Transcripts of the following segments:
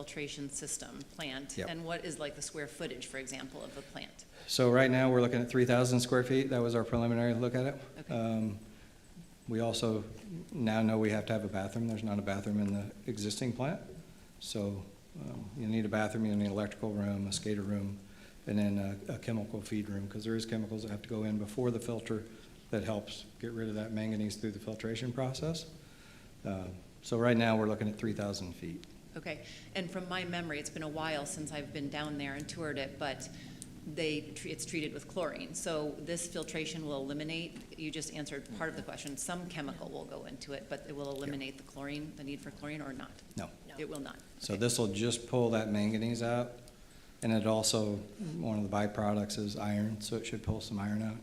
filtration system plant? Yep. And what is like the square footage, for example, of a plant? So right now, we're looking at 3,000 square feet. That was our preliminary look at it. Okay. Um, We also now know we have to have a bathroom. There's not a bathroom in the existing plant. So um, you need a bathroom, you need an electrical room, a skater room, and then a a chemical feed room, because there is chemicals that have to go in before the filter that helps get rid of that manganese through the filtration process. Uh, So right now, we're looking at 3,000 feet. Okay, and from my memory, it's been a while since I've been down there and toured it, but they, tr- it's treated with chlorine. So this filtration will eliminate, you just answered part of the question, some chemical will go into it, but it will eliminate the chlorine, the need for chlorine or not? No. It will not? So Okay. this will just pull that manganese out, and it also, one of the byproducts is iron, so it should pull some iron out.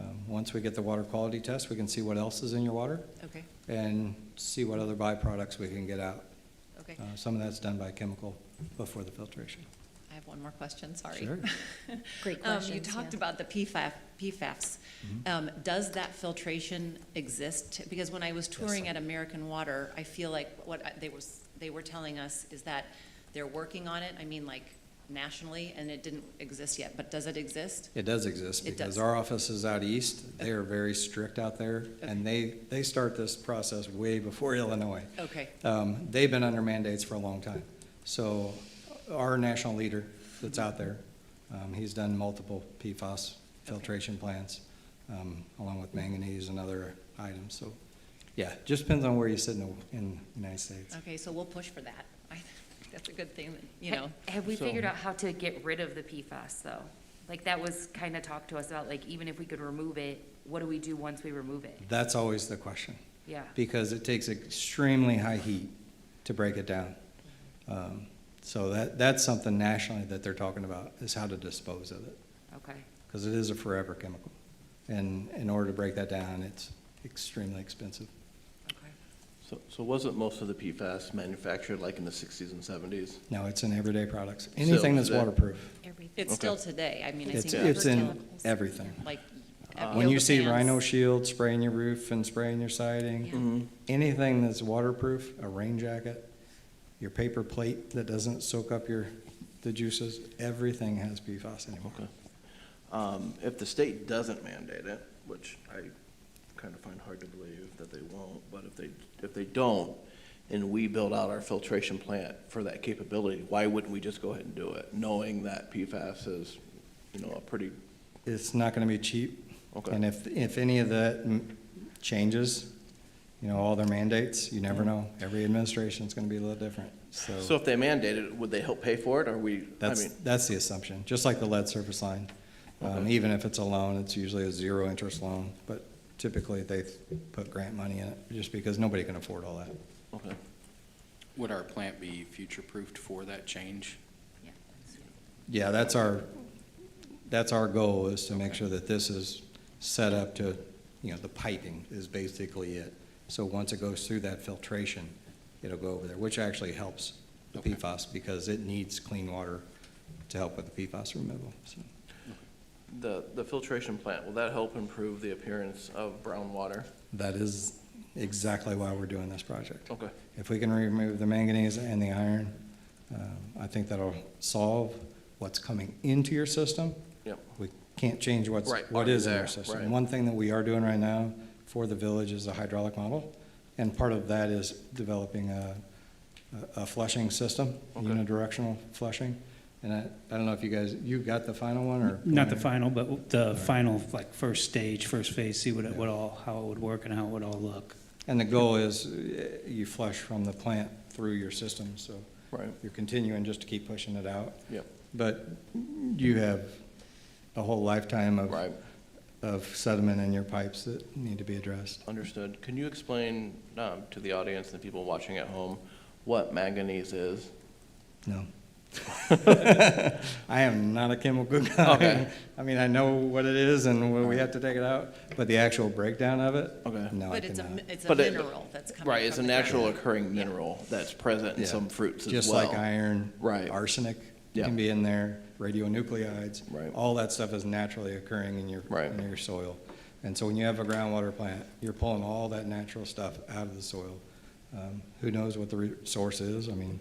Um, Once we get the water quality test, we can see what else is in your water Okay, and see what other byproducts we can get out. okay. Uh, Some of that's done by chemical before the filtration. I have one more question, sorry. Sure. Great Um, You questions, talked yeah. about the PFAF, PFAS. Mm-hmm. Um, Does that filtration exist? Because when I was touring sir. at American Water, I feel like what I- they was, they were telling us is that they're working on it, I mean, like nationally, and it didn't exist yet, but does it exist? It does exist It because does. our office is out east. They are very strict out there, and they, they start this process way before Illinois. Okay, Um, They've been under mandates for a long time. So our national leader that's out there, um, he's done multiple PFAS filtration plants, um, along with manganese and other items. So, yeah, just depends on where you sit in the, in the United States. okay, so we'll push for that. I think That's a good thing, that, you know. Ha- Have we So- figured out how to get rid of the PFAS, though? Like, that was kind of talked to us about, like, even if we could remove it, what do we do once we remove it? That's always the question. Yeah. because it takes extremely high heat to break it down. Um, So that, that's something nationally that they're talking about, is how to dispose of it, Okay, because it is a forever chemical. And in order to break that down, it's extremely expensive. okay. So, so wasn't most of the PFAS manufactured like in the sixties and seventies? No, it's in everyday products, anything that's that- waterproof. It's Okay. still today, I mean, I It's, think. it's in fertilizers, everything. Like. When you see yoga Rhino pants. Shield spraying your roof and spraying your siding, Yeah. Mm-hmm. anything that's waterproof, a rain jacket, your paper plate that doesn't soak up your, the juices, everything has PFAS anymore. Okay. Um, if the state doesn't mandate it, which I kind of find hard to believe that they won't, but if they, if they don't, and we build out our filtration plant for that capability, why wouldn't we just go ahead and do it, knowing that PFAS is, you know, a pretty, It's not gonna be cheap. Okay. And if, if any of that mm, changes, you know, all their mandates, you never know. Every administration's gonna be a little different, so so if they mandate it, would they help pay for it, or we, I that's, mean, that's the assumption, just like the lead surface line. Um, Okay. even if it's a loan, it's usually a zero interest loan, but typically they put grant money in it, just because nobody can afford all that. okay. Would our plant be future-proofed for that change? Yeah. Yeah, that's our, that's our goal, is to make sure that this is set up to, you know, the piping is basically it. So once it goes through that filtration, it'll go over there, which actually helps the Okay. PFAS, because it needs clean water to help with the PFAS removal, so. The, the filtration plant, will that help improve the appearance of brown water? That is exactly why we're doing this project. Okay. If we can remove the manganese and the iron, um, I think that'll solve what's coming into your system. Yep. We can't change what's, Right, what already is in your there, right. system. One thing that we are doing right now for the village is a hydraulic model, and part of that is developing a, a flushing system, Okay. unidirectional flushing. And I, I don't know if you guys, you got the final one, or? Not the final, but the final, like, first stage, first phase, see what it would all, how it would work and how it would all look. And the goal is uh, you flush from the plant through your system, so. Right. You're continuing just to keep pushing it out. Yep. But you have a whole lifetime of. Right. Of sediment in your pipes that need to be addressed. Understood. Can you explain um, to the audience and people watching at home what manganese is? No. I am not a chemical guy. Okay. I mean, I know what it is and when we have to take it out, but the actual breakdown of it, Okay. no, I But it's a, mi- cannot. it's a But it- mineral that's coming from the Right, it's a natural ground. occurring mineral that's present in Yeah. some fruits as well. Just like iron. Right. Arsenic Yeah. can be in there, radionuclides. Right. All that stuff is naturally occurring in your, Right. in your soil. And so when you have a groundwater plant, you're pulling all that natural stuff out of the soil. Um, Who knows what the re- source is? I mean,